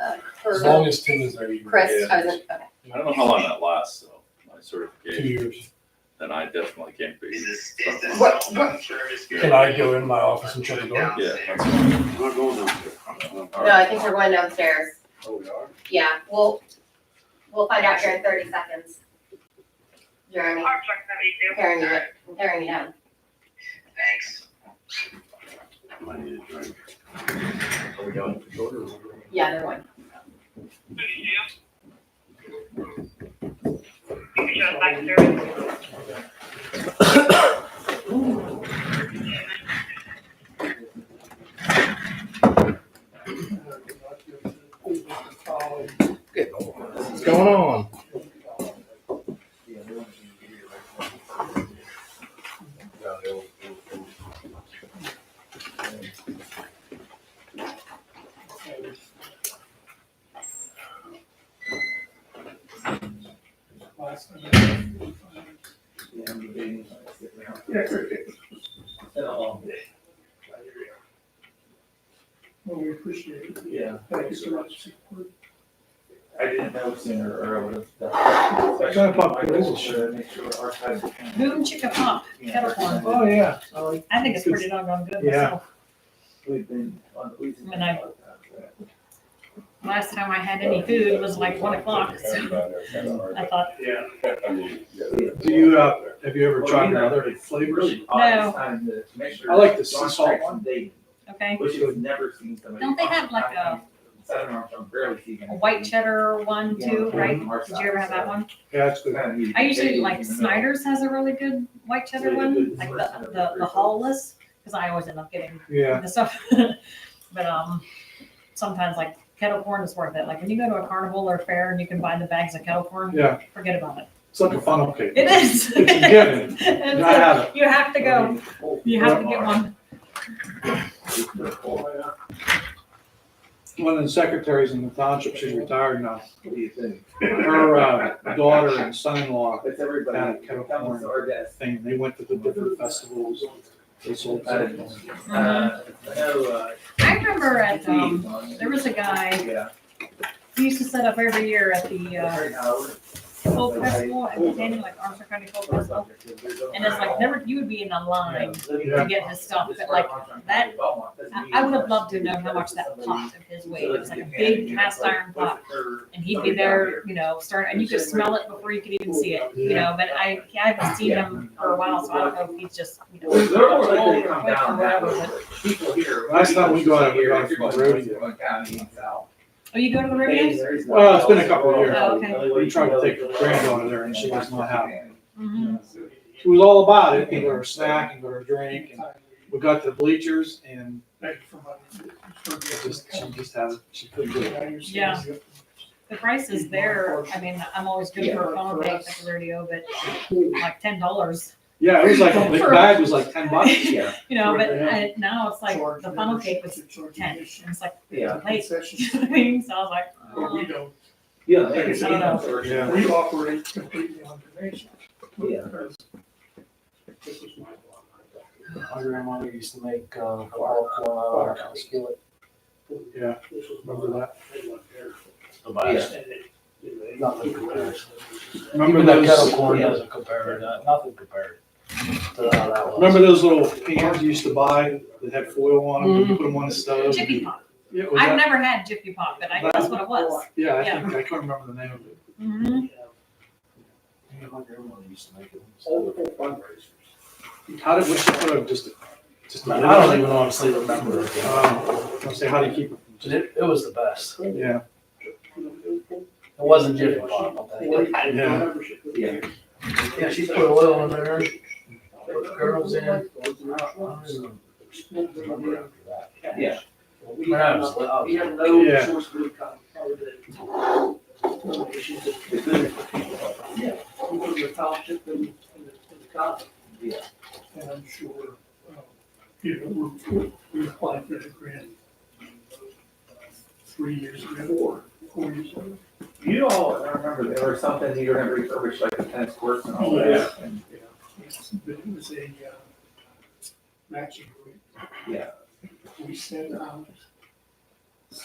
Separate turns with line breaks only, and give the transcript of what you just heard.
As
for
long as Tim is there, you
Chris,
Yeah.
I was, okay.
I don't know how long that lasts, though, my
two
certification,
years.
then I definitely can't be.
Is this, is this
What-
cell phone service? good?
Can I go in my office and shut the door?
Yeah. that's-
No, I think we're going downstairs.
Oh, we are?
Yeah, we'll, we'll find out here in thirty seconds. Jeremy, tearing you, tearing you down.
Thanks.
I need a drink. Are we going for short or?
Yeah, they're one.
What's going on?
Oh, Well, we appreciate it.
Yeah,
Thank you so much.
I didn't know sooner or I would have.
Gotta pop quizzes.
Should I make sure archives.
Boom chicken pop, kettle corn.
Oh, yeah.
I think it's pretty doggone good
Yeah.
myself.
We've been on. we've been-
When I- Last time I had any food was like one o'clock, so I thought,
Yeah.
Do you, uh, have you ever tried another flavors?
Really odd this time to make sure.
I like the sea
John
salt
Strick's
one.
dating,
okay,
Which you've never seen somebody.
Don't they have like a-
I don't know, I'm barely seeing.
a white cheddar one too, right?
Yeah, our
Did you ever have that one?
Yeah, it's
side,
good.
so kinda neat.
I usually like
Dating, you know.
Snyder's has a really good white cheddar one, like the, the, the hollless, because I always end up getting
Yeah.
the stuff. But, um, sometimes like kettle corn is worth it. Like when you go to a carnival or fair and you can buy the bags of kettle corn,
Yeah.
forget about it.
It's like a funnel cake.
It is.
It's a given.
It's
And I
a-
had it.
You have to go. You have to get one.
One of the secretaries in the township, she's retired now.
What do you think?
Her, uh, daughter and son-in-law
It's
had a
everybody
kettle
that comes
corn
to our desk.
thing. They went to the different festivals. They sold.
Uh,
kettle corn.
Uh, I know, uh.
I Mm-hmm. remember at, um,
Steve-
there was a guy,
Yeah.
he used to set up every year at the, uh,
Right now, we're-
folk festival, at the Daniel, like Armstrong County Folk Festival. And it's like, never, you would be in a line to get this stuff, but like, that- I, I would have loved to know how much that pot of his weighed, it was like a big cast iron pot. And he'd be there, you know, starting, and you could smell it before you could even see it, you know, but I, I haven't seen him for a while, so I don't know if he's just, you know.
They're more likely
old
to
or
come
quick or
down that
whatever,
way.
but-
People here.
Last time we got it, we got it from the rodeo.
Oh, you go to the
Hey,
rodeo?
there's no-
Well, it's been a couple of years.
Oh, okay.
We tried to take her granddaughter there and she was not happy.
Mhm.
She was all about it. Give her a snack and give her a drink. And we got to the bleachers and it just, she just had, she couldn't do it.
Yeah. The price is there, I mean, I'm always good for a phone bank at the rodeo, but like ten dollars,
Yeah, it was like, the bag was like ten bucks.
Yeah,
you know, but uh, now it's like, the funnel cake was ten, and it's like,
yeah,
late, you know what I mean? so I was like,
But
oh.
we don't.
yeah. they-
I don't know.
Yeah.
We-
We
operate completely on donation.
Yeah.
This is my block.
My grandmother used to make, uh, popcorn out of our house skillet.
Yeah,
This was my
remember
block.
that?
They left there.
Yeah.
Nothing compared.
Remember
Even that kettle
those,
corn
yeah.
doesn't compare, to that. nothing compared to how that was.
remember those little cans you used to buy that had foil on them? You put them on the stove.
Jiffy Pop.
Yeah, was
I've
that-
never had Jiffy Pop, but I know that's what it was.
yeah, I
yeah.
think, I can't remember the name of it.
Mhm.
Yeah, My grandmother used to make it.
Multiple fundraisers.
How did, what's the photo of just, just.
I don't even honestly remember.
Um, I'm saying, how do you keep it? from
But it, it was the best. It
just- Yeah,
wasn't Jiffy Pop, I think.
yeah.
Yeah.
Yeah, she put oil in there, put the girls in. I don't even remember after that.
Yeah.
When I was li- I was-
We have no
Yeah.
source of income. other than donations that
It's been-
come from the township and, and the- and the county.
Yeah.
And I'm sure, um, you know, we're, we applied for the grant three years ago, four, four years ago.
You all, I remember there was something you were gonna refurbish like the tennis courts and all that.
Yeah.
and-
But it was a, uh, matching grant.
Yeah.
We sent out